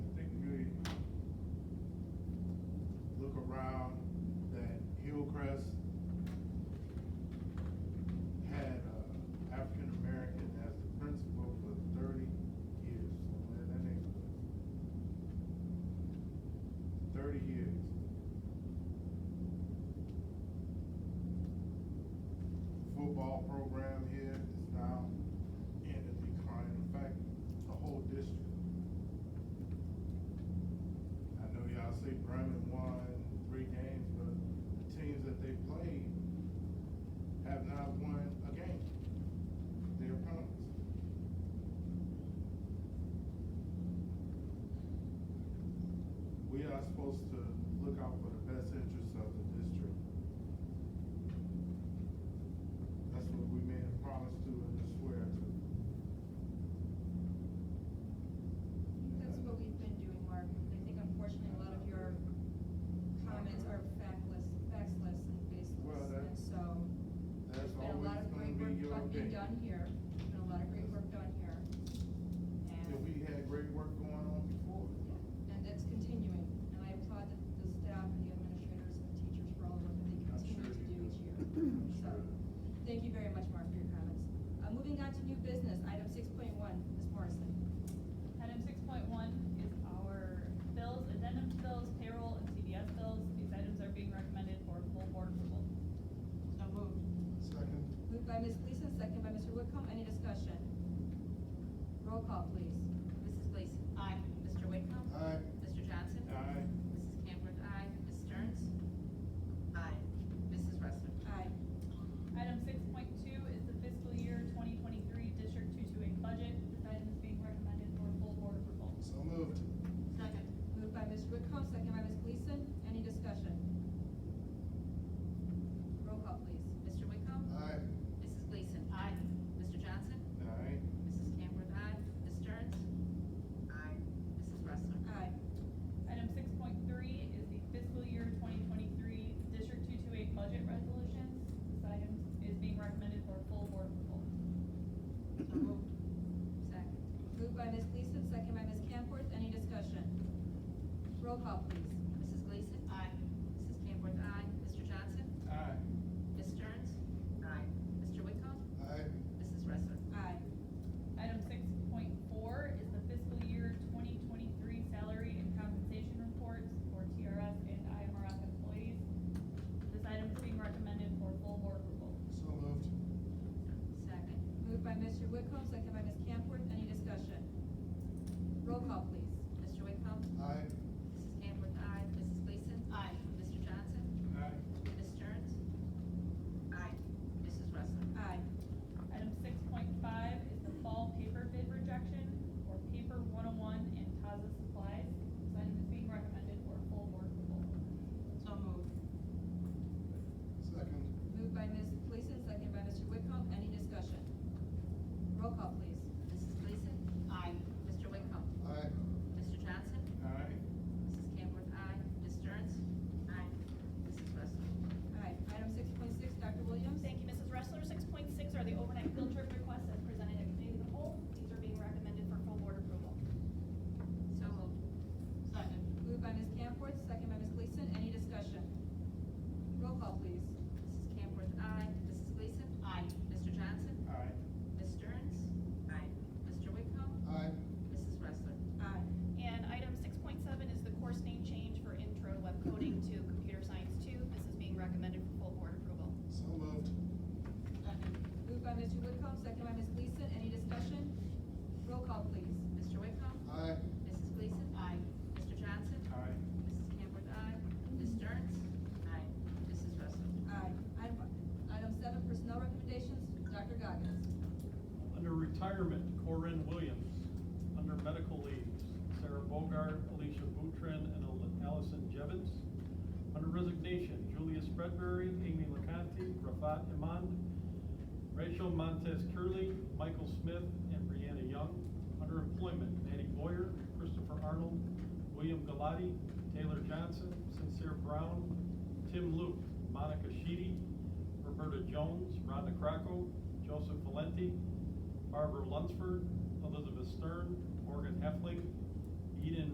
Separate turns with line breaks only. uh, thirty units. Football program here is now in a decline, in fact, the whole district. I know y'all say Bremen won three games, but the teams that they played have not won a game. Their opponents. We are supposed to look out for the best interests of the district. That's what we made a promise to and a swear to.
That's what we've been doing, Mark. I think unfortunately, a lot of your comments are factless, factless and
Well,
baseless,
that-
and so.
That's
there's been a
always
lot of
gonna
great
be
work
your
done- being
opinion.
Done here, There's been a lot of great work done here.
Yeah,
And,
we had great work going on before.
yeah, and it's continuing, and I applaud the, the staff and the administrators and the teachers for all the work that they
I'm sure
continue to do
you
each year.
do. I'm
So,
sure.
Thank you very much, Mark, for your comments. Uh, moving on to new business, item six point one, Ms. Morrison.
Item six point one is our bills, addendum to bills, payroll, and CDS bills. These items are being recommended for full board approval.
So moved.
Second.
Moved by Ms. Gleason, second by Mr. Whitcomb, any discussion? Roll call, please.
Mrs. Gleason. Aye. Mr. Whitcomb.
Aye.
Mr. Johnson.
Aye.
Mrs. Camworth, aye. Ms. Stearns. Aye. Mrs. Wrestler.
Aye.
Item six point two is the fiscal year twenty twenty-three District two-two-eight budget. This item is being recommended for full board approval.
So moved.
Second.
Moved by Ms. Whitcomb, second by Ms. Gleason, any discussion? Roll call, please.
Mr. Whitcomb.
Aye.
Mrs. Gleason. Aye. Mr. Johnson.
Aye.
Mrs. Camworth, aye. Ms. Stearns. Aye. Mrs. Wrestler.
Aye.
Item six point three is the fiscal year twenty twenty-three District two-two-eight budget resolutions. This item is being recommended for full board approval.
So moved. Second.
Moved by Ms. Gleason, second by Ms. Camworth, any discussion? Roll call, please.
Mrs. Gleason. Aye. Mrs. Camworth, aye. Mr. Johnson.
Aye.
Ms. Stearns. Aye. Mr. Whitcomb.
Aye.
Mrs. Wrestler.
Aye.
Item six point four is the fiscal year twenty twenty-three salary and compensation reports for TRS and IMRF employees. This item is being recommended for full board approval.
So moved.
Second.
Moved by Mr. Whitcomb, second by Ms. Camworth, any discussion? Roll call, please.
Mr. Whitcomb.
Aye.
Mrs. Camworth, aye. Mrs. Gleason. Aye. Mr. Johnson.
Aye.
Ms. Stearns? Aye. Mrs. Wrestler?
Aye.
Item six point five is the fall paper bid rejection for paper one oh one and Taza supplies. This item is being recommended for full board approval.
So moved.
Second.
Moved by Ms. Gleason, second by Mr. Whitcomb, any discussion? Roll call, please.
Mrs. Gleason? Aye. Mr. Whitcomb?
Aye.
Mr. Johnson?
Aye.
Mrs. Camworth, aye. Ms. Stearns? Aye. Mrs. Wrestler?
Aye. Item six point six, Dr. Williams?
Thank you, Mrs. Wrestler. Six point six are the overnight field trip requests as presented at committee of the whole. These are being recommended for full board approval.
So moved. Second.
Moved by Ms. Camworth, second by Ms. Gleason, any discussion? Roll call, please.
Mrs. Camworth, aye. Mrs. Gleason? Aye. Mr. Johnson?
Aye.
Ms. Stearns? Aye. Mr. Whitcomb?
Aye.
Mrs. Wrestler?
Aye.
And item six point seven is the course name change for intro web coding to computer science two. This is being recommended for full board approval.
So moved.
Second.
Moved by Mr. Whitcomb, second by Ms. Gleason, any discussion? Roll call, please.
Mr. Whitcomb?
Aye.
Mrs. Gleason? Aye. Mr. Johnson?
Aye.
Mrs. Camworth, aye. Ms. Stearns? Aye. Mrs. Wrestler?
Aye. Item, item seven, personnel recommendations, Dr. Goggins.
Under retirement, Corinne Williams. Under medical leaves, Sarah Bogart, Alicia Boutron, and Al- Allison Jevons. Under resignation, Julia Spreadbury, Amy LaCanti, Rafat Iman, Rachel Montez Curley, Michael Smith, and Brianna Young. Under employment, Manny Boyer, Christopher Arnold, William Galati, Taylor Johnson, Sincere Brown, Tim Luke, Monica Sheedy, Roberta Jones, Rhonda Cracco, Joseph Valenti, Barbara Lunsford, Elizabeth Stern, Morgan Heffling, Eden